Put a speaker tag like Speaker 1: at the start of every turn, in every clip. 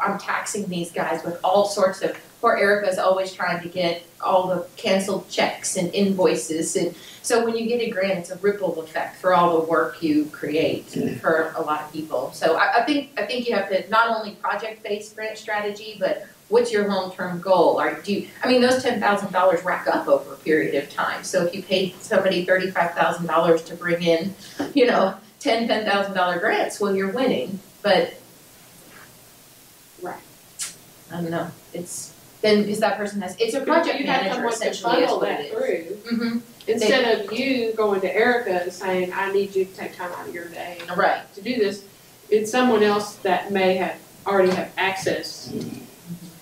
Speaker 1: I'm taxing these guys with all sorts of. Poor Erica's always trying to get all the canceled checks and invoices, and so when you get a grant, it's a ripple effect for all the work you create for a lot of people. So I, I think I think you have to not only project-based grant strategy, but what's your long-term goal? Are do you, I mean those ten thousand dollars rack up over a period of time. So if you paid somebody thirty-five thousand dollars to bring in, you know, ten ten thousand dollar grants, well you're winning, but
Speaker 2: Right.
Speaker 1: I don't know. It's then because that person has it's a project
Speaker 2: You have
Speaker 1: manager
Speaker 2: someone to
Speaker 1: essentially is
Speaker 2: funnel
Speaker 1: what it
Speaker 2: that through,
Speaker 1: Mm-hmm.
Speaker 2: instead of you going to Erica and saying, I need you to take time out of your day
Speaker 1: Mm-hmm. Right.
Speaker 2: to do this. It's someone else that may have, already have access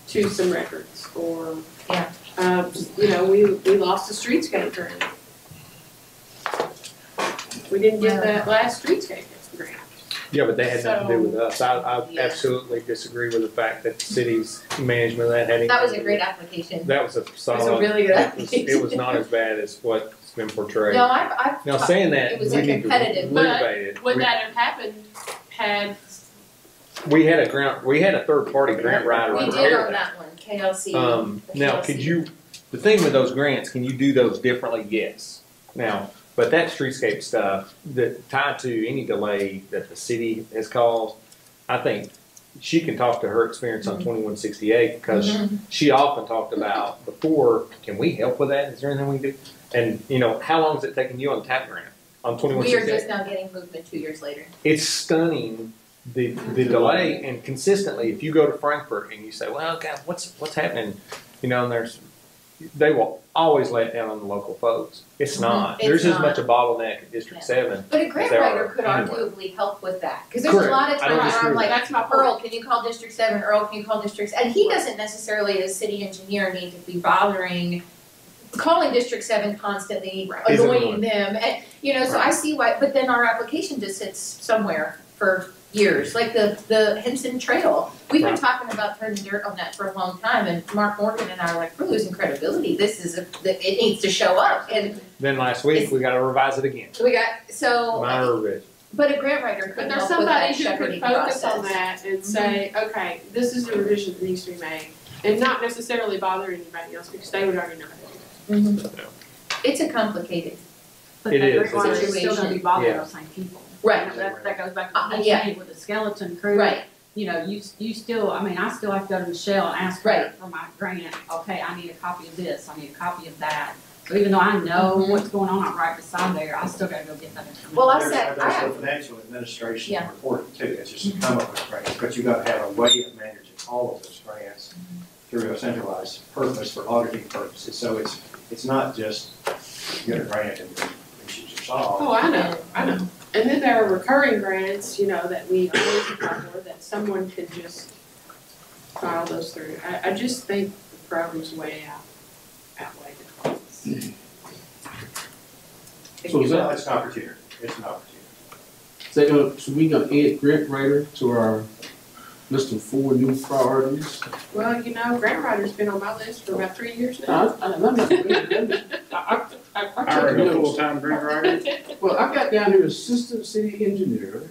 Speaker 2: to some records or.
Speaker 1: Yeah.
Speaker 2: Um, you know, we, we lost the streetscape grant. We didn't
Speaker 1: Yeah.
Speaker 2: get that last streetscape grant.
Speaker 3: Yeah, but they had nothing to do with us. I, I
Speaker 1: Yeah.
Speaker 3: absolutely disagree with the fact that the city's management of that had anything.
Speaker 1: That was
Speaker 3: to
Speaker 1: a
Speaker 3: do
Speaker 1: great
Speaker 3: with
Speaker 1: application.
Speaker 3: it. That was a
Speaker 1: It was a
Speaker 3: solid.
Speaker 1: really good
Speaker 3: It was, it was
Speaker 1: application.
Speaker 3: not as bad as what's been portrayed.
Speaker 1: No, I've, I've.
Speaker 3: Now,
Speaker 1: talked-
Speaker 3: saying that,
Speaker 1: It was
Speaker 3: we
Speaker 1: a
Speaker 3: need to
Speaker 1: competitive,
Speaker 2: but
Speaker 3: motivate it.
Speaker 2: Would
Speaker 3: We-
Speaker 2: that have happened had,
Speaker 3: We had a grant, we had a third-party grant writer
Speaker 1: we did
Speaker 3: prepare
Speaker 1: on
Speaker 3: that.
Speaker 1: that one, KLC.
Speaker 3: Um,
Speaker 1: the
Speaker 3: now,
Speaker 1: KLC.
Speaker 3: could you, the thing with those grants, can you do those differently? Yes. Now, but that streetscape stuff, that tied to any delay that the city has caused, I think she can talk to her experience
Speaker 1: Mm-hmm.
Speaker 3: on twenty-one sixty-eight because
Speaker 1: Mhm.
Speaker 3: she often talked about before, can we help with that? Is there anything we can do? And, you know, how long is it taking you on tap grant on
Speaker 1: We are
Speaker 3: 2168?
Speaker 1: just now getting movement two years later.
Speaker 3: It's stunning the, the delay and consistently, if you go to Frankfurt and you say, well, God, what's, what's happening? You know, and there's, they will always lay it down on the local folks. It's
Speaker 1: Mhm.
Speaker 3: not.
Speaker 1: It's
Speaker 3: There's as
Speaker 1: not.
Speaker 3: much a bottleneck at District
Speaker 1: Yeah.
Speaker 3: Seven.
Speaker 1: But a grant
Speaker 3: There are
Speaker 1: writer could
Speaker 3: anywhere.
Speaker 1: arguably help with that, because there's a
Speaker 3: Correct.
Speaker 1: lot of
Speaker 3: I
Speaker 1: times
Speaker 3: don't
Speaker 1: where I'm
Speaker 3: disagree.
Speaker 1: like,
Speaker 2: that's my point.
Speaker 1: Earl, can you call District Seven, Earl, can you call District, and he doesn't necessarily, as city engineer, need to be bothering, calling District Seven constantly,
Speaker 3: Is
Speaker 1: annoying
Speaker 3: annoying.
Speaker 1: them, and, you know, so I
Speaker 3: Right.
Speaker 1: see why, but then our application just sits somewhere for years, like the, the Henson Trail. We've been
Speaker 3: Right.
Speaker 1: talking about turning dirt on that for a long time, and Mark Morgan and I are like, we're losing credibility, this is, a it needs to show up, and
Speaker 3: Then last week,
Speaker 1: It's-
Speaker 3: we got to revise it again.
Speaker 1: we got, so.
Speaker 3: Minor revision.
Speaker 1: But a grant writer
Speaker 2: But
Speaker 1: could help
Speaker 2: there's
Speaker 1: with
Speaker 2: somebody
Speaker 1: that
Speaker 2: who could
Speaker 1: shepherding
Speaker 2: focus
Speaker 1: process. Mm-hmm.
Speaker 2: on that and say, okay, this is the revision that needs to be made, and not necessarily bother anybody else, because they would already know how to do it.
Speaker 1: Mhm. It's a complicated,
Speaker 4: But
Speaker 3: It
Speaker 4: that
Speaker 3: is,
Speaker 4: great
Speaker 3: it
Speaker 4: water
Speaker 1: is.
Speaker 4: is still gonna be bothering those same people.
Speaker 1: Right.
Speaker 4: You know, That, that goes back to
Speaker 1: Uh,
Speaker 4: what you
Speaker 1: yeah.
Speaker 4: saying with the skeleton crew.
Speaker 1: right,
Speaker 4: You know, you, you still, I mean, I still have to go to Michelle and ask
Speaker 1: Right.
Speaker 4: her for my grant, okay, I need a copy of this, I need a copy of that. So even though I know
Speaker 1: Mhm.
Speaker 4: what's going on, I'm right beside there, I still gotta go get that information.
Speaker 1: Well, I
Speaker 5: There's-
Speaker 1: said-
Speaker 5: There's
Speaker 1: I-
Speaker 5: a financial administration
Speaker 1: Yeah. Mm-hmm.
Speaker 5: report too, it's just a come up with grants, but you've got to have a way of managing all of those grants
Speaker 1: Mm-hmm.
Speaker 5: through a centralized purpose for auditing purposes, so it's, it's not just get a grant and issues are solved.
Speaker 2: Oh, I know, I know. And then there are recurring grants, you know, that we always apply for, that someone could just file those through. I, I just think the program's way out, outweigh the costs.
Speaker 5: So it's not- it's an opportunity, it's an opportunity.
Speaker 6: So, uh, so we gonna add grant writer to our list of four new priorities?
Speaker 2: Well, you know, grant writer's been on my list for about three years
Speaker 6: I,
Speaker 2: now.
Speaker 6: I, I'm not I, I, I, I took notes.
Speaker 7: full-time grant writer.
Speaker 6: Well, I got down here assistant city engineer,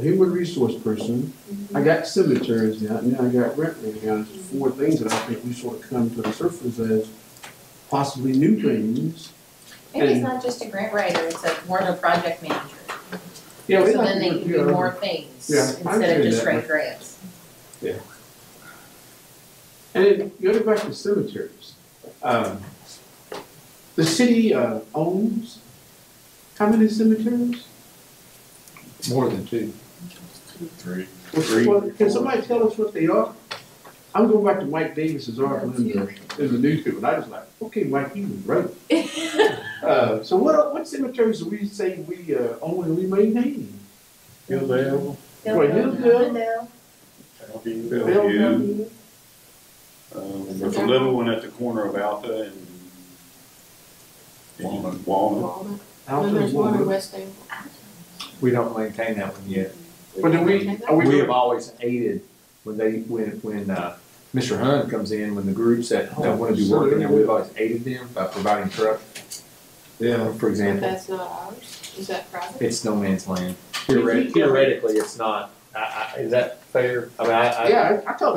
Speaker 6: human resource person. I got cemeteries now, and now I got grant writer now. There's four things that I think we sort of come to the surface as possibly new things.
Speaker 1: maybe it's
Speaker 6: And-
Speaker 1: not just a grant writer, it's a more of a project manager.
Speaker 6: Yeah, we
Speaker 1: So
Speaker 6: like
Speaker 1: then they
Speaker 6: to-
Speaker 1: can
Speaker 6: yeah.
Speaker 1: do more things
Speaker 6: Yeah, I
Speaker 1: instead of
Speaker 6: understand
Speaker 1: just
Speaker 6: that.
Speaker 1: write grants.
Speaker 6: And then going back to cemeteries, um, the city uh, owns how many cemeteries?
Speaker 3: More than two.
Speaker 7: Three. Three.
Speaker 6: Well, can somebody tell us what they are? I'm going back to Mike Davis's article in the, in the newspaper, and I was like, okay, Mike, you was right. Uh, so what, what cemeteries do we say we uh, own and we maintain?
Speaker 7: Hillvale.
Speaker 6: Well, Hillsdale.
Speaker 1: Hillsdale.
Speaker 7: Bellevue. Um, There's a little one at the corner of Alpha and and Walnut.
Speaker 2: Walnut.
Speaker 6: Alton,
Speaker 2: Then there's one in
Speaker 6: Walnut.
Speaker 2: West Dale.
Speaker 3: We don't maintain that one yet.
Speaker 6: But do we, are
Speaker 3: We
Speaker 6: we,
Speaker 3: have always aided when they, when, when, uh, Mr. Hunt comes in, when the groups that, that wanna do work in there, we've always aided them by providing truck,
Speaker 6: yeah,
Speaker 3: for example.
Speaker 2: That's not ours, is that private?
Speaker 3: It's no man's land. Theoretically, it's not, I, I, is that
Speaker 8: fair? I mean, I, I.
Speaker 3: Yeah, I I told